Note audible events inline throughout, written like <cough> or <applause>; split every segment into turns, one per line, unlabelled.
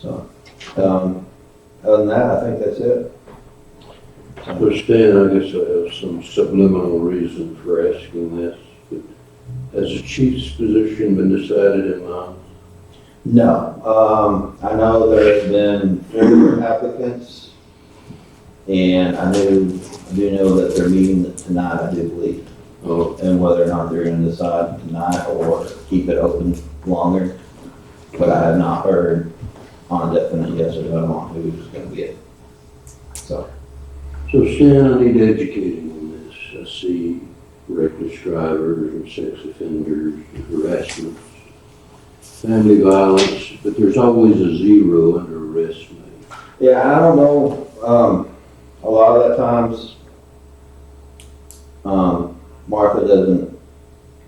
So, um, other than that, I think that's it.
Well, Stan, I guess I have some subliminal reason for asking this. but Has the chief's position been decided in Mons?
No, um, I know there's been four applicants, and I do, I do know that they're meeting tonight, I do believe,
Oh,
and whether or not they're gonna decide tonight or keep it open longer. But I have not heard on a definite yes or no on who's gonna be it. So,
so Stan, I need educating on this. I see reckless drivers and sex offenders, harassment, family violence, but there's always a zero under arrest made.
yeah, I don't know, um, a lot of the times, um, Martha doesn't,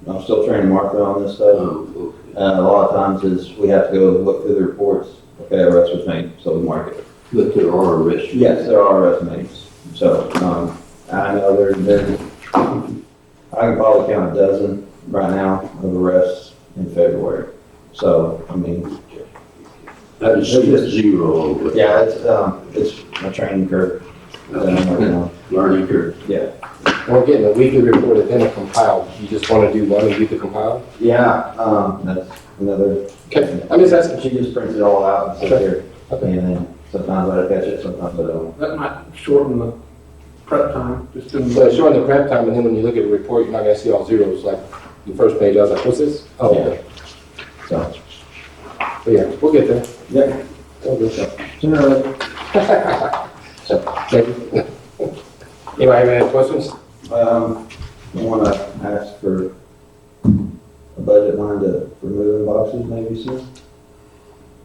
I'm still training Martha on this stuff.
Oh, okay.
Uh, a lot of times is we have to go look through the reports, okay, arrest was made, so we mark it.
But there are arrests. made.
Yes, there are arrest names, so, um, I know there's been, I can probably count a dozen right now of arrests in February. So, I mean,
I just see a zero over it.
yeah, it's, um, it's a training curve that I'm working on.
Learning curve.
We're getting a weekly report and then a compiled. You just want to do one and do the compiled?
Yeah, um, that's another,
Okay, I'm just asking.
she just prints it all out and sits here,
Okay.
and then sometimes I catch it, sometimes I don't.
That might shorten the prep time, just in
So it's showing the prep time, and then when you look at the report, you're not gonna see all zeros, like the first page, I was like, what's this? Oh, okay.
So,
But yeah, we'll get there.
yeah,
We'll get there.
sooner or later,
Thank you. Anybody have any questions?
Um, I wanna ask for a budget line to remove boxes maybe
<laughs>
soon,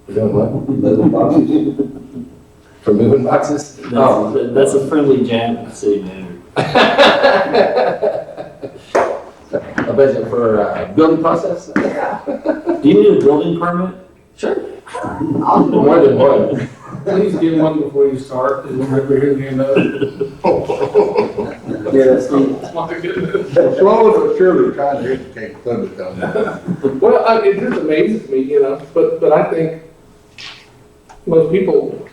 We're doing what?
moving boxes.
For moving boxes? Um,
That's, that- Oh, that's a friendly jab at the city manager.
A budget for, uh, building process?
Do you need a building permit?
Sure. More than one.
Please get one before you start, and then we're here to end up.
Yeah, that's the,
My goodness.
Slowly but surely trying to educate public on that.
Well, I, it just amazes me, you know, but, but I think most people,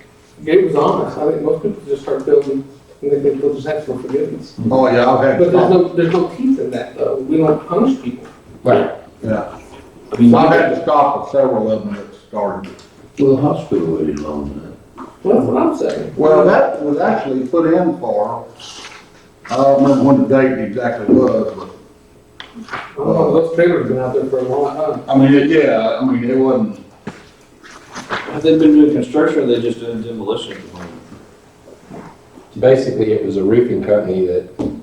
Gabe was honest, I think most people just start building, and then people just ask for forgiveness.
Oh, yeah, I've
But
had,
there's
I've
no, there's no teeth in that, though, we don't punish people.
Right.
I mean,
had to stop at several of them that started.
Well, the hospital waited long enough.
Well, that's what I'm saying.
Well, that was actually put in for, I don't remember when the date exactly was, but,
I don't know, those trailers have been out there for a long time.
I mean, it- yeah, I mean, it wasn't,
have they been doing construction or they just doing demolition at the moment?
Basically, it was a roofing company that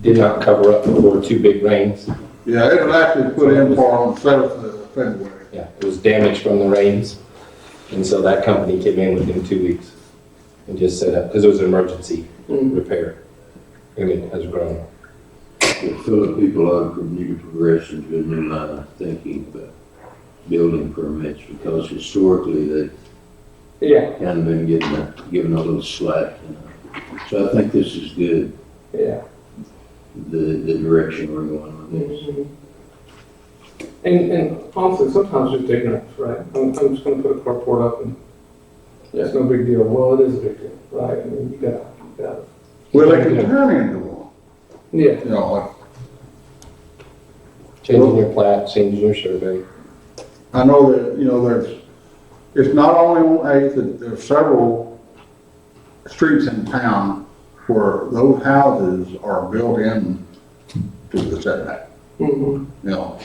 did not cover up before two big rains.
yeah, it was actually put in for on the seventh of February.
Yeah, it was damaged from the rains, and so that company came in within two weeks and just set up, because it was an emergency
Mm.
repair. I mean, it has grown.
It filling people on from new progression to a new line of thinking about building permits because historically they
Yeah,
kind of been getting a, given a little slack. you know. So I think this is good,
yeah.
the, the direction we're going with this.
Mhm. And, and honestly, sometimes it's ignorance, right? I'm, I'm just gonna put a carport up and it's no big deal. Well, it is a big deal, right? I mean, you gotta, you gotta.
Well, they could turn into one,
Yeah,
you know, like,
Changing your plat, changing your survey.
I know that, you know, there's, it's not only on Eighth, that there's several streets in town where those houses are built in to the setback,
mhm,
you know.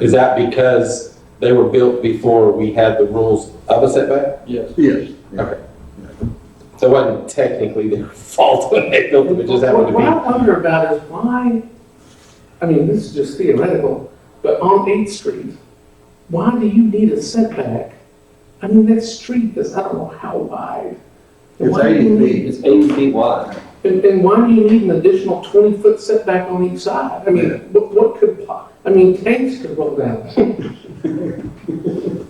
Is that because they were built before we had the rules of a setback?
yes.
Yes.
So it wasn't technically their <laughs> fault when they built them, it just happened
What what
to
I wonder about is why, I mean, this is just theoretical, but on Eighth Street, why do you need a setback? I mean, that street is, I don't know how wide.
It's
Why do you
80
need-
feet.
it's eighty feet wide.
And, and why do you need an additional twenty-foot setback on each side? I mean,
Yeah.
what, what could, po- I mean, tanks could
<laughs>
roll down. I
Tanks
just
can
don't
do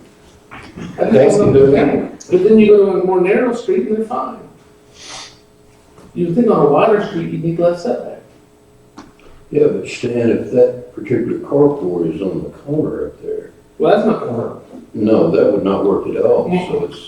it.
understand. But then you go to a more narrow street and they're fine. You would think on a wider street, you need less setback.
Yeah, but Stan, if that particular carport is on the corner up there,
Well, that's not gonna work.
no, that would not work at all. So it's,